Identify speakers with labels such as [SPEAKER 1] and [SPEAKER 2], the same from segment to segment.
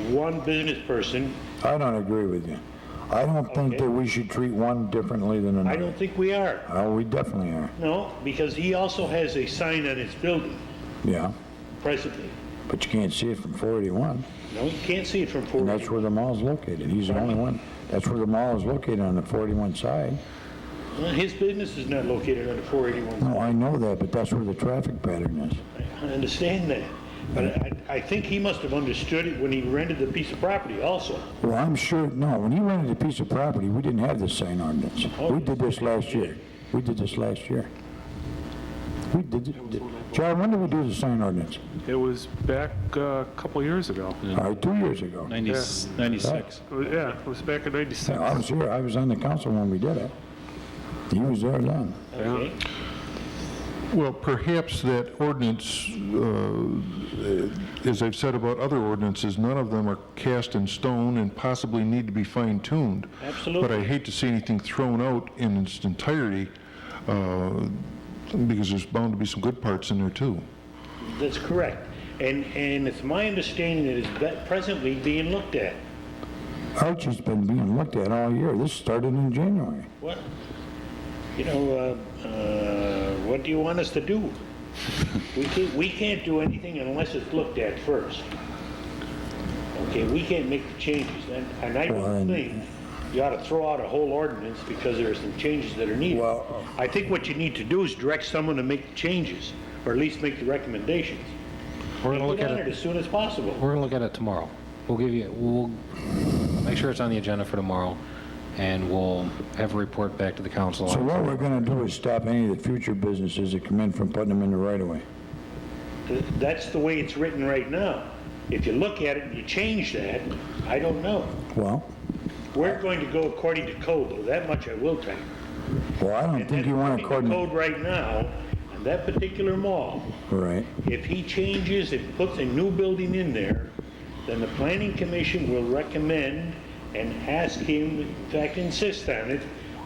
[SPEAKER 1] one business person.
[SPEAKER 2] I don't agree with you. I don't think
[SPEAKER 1] Okay.
[SPEAKER 2] that we should treat one differently than
[SPEAKER 1] I
[SPEAKER 2] another.
[SPEAKER 1] don't think we are.
[SPEAKER 2] Oh, we definitely are,
[SPEAKER 1] No, because he also has a sign on his building
[SPEAKER 2] yeah.
[SPEAKER 1] presently.
[SPEAKER 2] But you can't see it from 481,
[SPEAKER 1] No, you can't see it from
[SPEAKER 2] and
[SPEAKER 1] 481.
[SPEAKER 2] that's where the mall's located. He's the only one. That's where the mall is located, on the 41 side.
[SPEAKER 1] Well, His business is not located on the 481.
[SPEAKER 2] No, I know that, but that's where the traffic pattern is.
[SPEAKER 1] I understand that, but I, I think he must have understood it when he rented the piece of property also.
[SPEAKER 2] Well, I'm sure, no, when he rented a piece of property, we didn't have this sign ordinance.
[SPEAKER 1] Oh,
[SPEAKER 2] We did this last year. We did this last year. We did, it- John, when did we do the sign ordinance?
[SPEAKER 3] It was back uh, a couple years ago.
[SPEAKER 2] All right, two years ago.
[SPEAKER 4] 90 96.
[SPEAKER 3] It was- Yeah, it was back in
[SPEAKER 2] Yeah, I
[SPEAKER 3] 96.
[SPEAKER 2] was here, I was on the council when we did it. He was there then.
[SPEAKER 1] Okay.
[SPEAKER 5] Well, perhaps that ordinance, uh, as I've said about other ordinances, none of them are cast in stone and possibly need to be fine-tuned.
[SPEAKER 1] Absolutely.
[SPEAKER 5] But I hate to see anything thrown out in its entirety, uh, because there's bound to be some good parts in there, too.
[SPEAKER 1] That's correct. And, and it's my understanding that it's be- presently being looked at.
[SPEAKER 2] Archie's been being looked at all year. This started in January.
[SPEAKER 1] What, you know, uh, uh, what do you want us to do? We can't, we can't do anything unless it's looked at first. Okay, we can't make the changes, and, and I
[SPEAKER 2] Well,
[SPEAKER 1] don't
[SPEAKER 2] and-
[SPEAKER 1] think you ought to throw out a whole ordinance because there are some changes that are needed.
[SPEAKER 2] Well-
[SPEAKER 1] I think what you need to do is direct someone to make the changes, or at least make the recommendations.
[SPEAKER 6] We're
[SPEAKER 1] And
[SPEAKER 6] going to look
[SPEAKER 1] get
[SPEAKER 6] at
[SPEAKER 1] on it
[SPEAKER 6] it,
[SPEAKER 1] as soon as possible.
[SPEAKER 6] we're going to look at it tomorrow. We'll give you, we'll make sure it's on the agenda for tomorrow, and we'll have a report back to the council.
[SPEAKER 2] So
[SPEAKER 6] on it.
[SPEAKER 2] what we're gonna do is stop any of the future businesses that come in from putting them in the right of way.
[SPEAKER 1] Th- That's the way it's written right now. If you look at it and you change that, I don't know.
[SPEAKER 2] Well,
[SPEAKER 1] We're going to go according to code, though, that much I will tell you.
[SPEAKER 2] well, I don't think you want to
[SPEAKER 1] According to
[SPEAKER 2] coordinate,
[SPEAKER 1] Code right now, in that particular mall,
[SPEAKER 2] right?
[SPEAKER 1] if he changes and puts a new building in there, then the planning commission will recommend and ask him, in fact insist on it,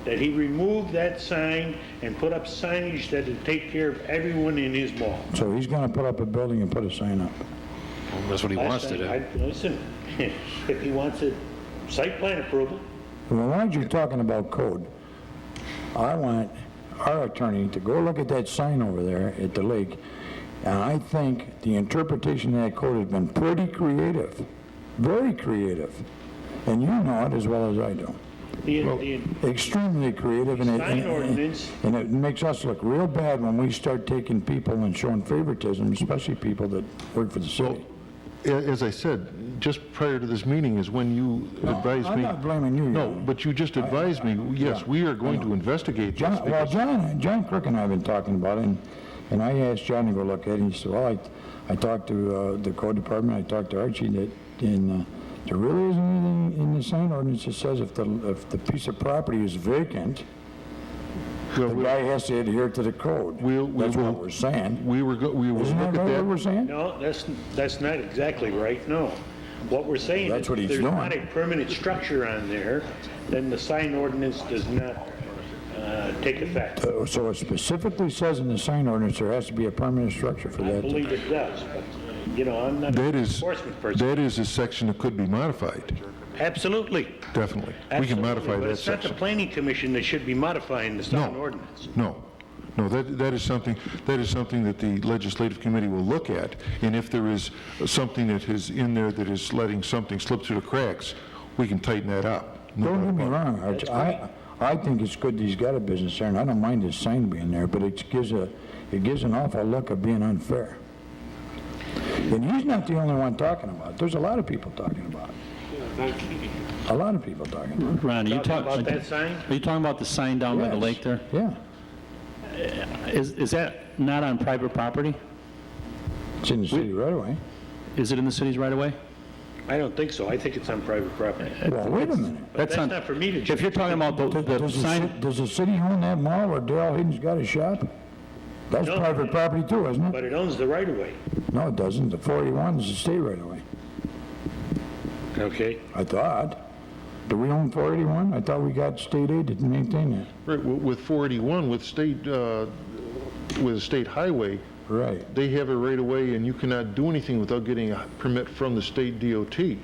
[SPEAKER 1] that he remove that sign and put up signage that'll take care of everyone in his mall.
[SPEAKER 2] So he's gonna put up a building and put a sign up.
[SPEAKER 6] That's what he wants to do.
[SPEAKER 1] I- Listen, if he wants a site plan approval,
[SPEAKER 2] Well, why aren't you talking about code? I want our attorney to go look at that sign over there at the lake, and I think the interpretation of that code has been pretty creative, very creative. And you know it as well as I do.
[SPEAKER 1] the, the,
[SPEAKER 2] Extremely creative, and it...
[SPEAKER 1] Sign ordinance.
[SPEAKER 2] And it makes us look real bad when we start taking people and showing favoritism, especially people that work for the city.
[SPEAKER 5] A- As I said, just prior to this meeting is when you advised me...
[SPEAKER 2] I'm not blaming you.
[SPEAKER 5] No, but you just advised me, yes, we are going to investigate this.
[SPEAKER 2] John, well,
[SPEAKER 5] because-
[SPEAKER 2] John, John Crook and I have been talking about it, and, and I asked John to go look at it, and he said, well, I, I talked to, uh, the code department, I talked to Archie, that, and, uh, there really isn't anything in the sign ordinance that says if the, if the piece of property is vacant,
[SPEAKER 5] Well,
[SPEAKER 2] the
[SPEAKER 5] we-
[SPEAKER 2] guy has to adhere to the code.
[SPEAKER 5] We'll- we
[SPEAKER 2] That's what
[SPEAKER 5] will-
[SPEAKER 2] we're saying.
[SPEAKER 5] We were, go- we will
[SPEAKER 2] Isn't
[SPEAKER 5] look at
[SPEAKER 2] that
[SPEAKER 5] that.
[SPEAKER 2] right what we're saying?
[SPEAKER 1] no, that's, that's not exactly right, no. What we're saying is,
[SPEAKER 2] That's what
[SPEAKER 1] if
[SPEAKER 2] he's
[SPEAKER 1] there's
[SPEAKER 2] doing.
[SPEAKER 1] not a permanent structure on there, then the sign ordinance does not uh, take effect.
[SPEAKER 2] Uh, So it specifically says in the sign ordinance, there has to be a permanent structure for
[SPEAKER 1] I
[SPEAKER 2] that. to-
[SPEAKER 1] believe it does, but, you know, I'm not
[SPEAKER 5] That
[SPEAKER 1] an
[SPEAKER 5] is,
[SPEAKER 1] enforcement person.
[SPEAKER 5] that is a section that could be modified,
[SPEAKER 1] Absolutely.
[SPEAKER 5] definitely. We can
[SPEAKER 1] absolutely,
[SPEAKER 5] modify
[SPEAKER 1] but
[SPEAKER 5] that
[SPEAKER 1] It's not the
[SPEAKER 5] section.
[SPEAKER 1] planning commission that should be modifying the sign ordinance.
[SPEAKER 5] No, no, that, that is something, that is something that the legislative committee will look at, and if there is something that is in there that is letting something slip through the cracks, we can tighten that up. No
[SPEAKER 2] Don't
[SPEAKER 5] doubt
[SPEAKER 2] get me
[SPEAKER 5] about it.
[SPEAKER 2] wrong, Arch, I, I think it's good that he's got a business there, and I don't mind his sign being there, but it gives a, it gives an awful look of being unfair. And he's not the only one talking about it, there's a lot of people talking about it. A lot of people talking about it.
[SPEAKER 4] Ron, are you
[SPEAKER 1] Talking about
[SPEAKER 4] talking,
[SPEAKER 1] that sign?
[SPEAKER 4] are you talking about the sign down by the
[SPEAKER 2] Yes.
[SPEAKER 4] lake there?
[SPEAKER 2] Yeah,
[SPEAKER 4] Is, is that not on private property?
[SPEAKER 2] it's in the city right away.
[SPEAKER 4] Is it in the city's right away?
[SPEAKER 1] I don't think so. I think it's on private property.
[SPEAKER 2] Well, wait a minute.
[SPEAKER 1] That's not for me to
[SPEAKER 4] If you're talking about the, the
[SPEAKER 2] Does the, ci-
[SPEAKER 4] sign,
[SPEAKER 2] does the city own that mall where Darrell Hayden's got his shop? That's
[SPEAKER 1] No.
[SPEAKER 2] private property too, isn't it?
[SPEAKER 1] But it owns the right of way.
[SPEAKER 2] No, it doesn't, the 41 is the state right away,
[SPEAKER 1] Okay.
[SPEAKER 2] I thought. Do we own 481? I thought we got state aid to maintain that.
[SPEAKER 5] Right, wi- with 481, with state, uh, with a state highway,
[SPEAKER 2] Right.
[SPEAKER 5] they have it right away, and you cannot do anything without getting a permit from the state DOT.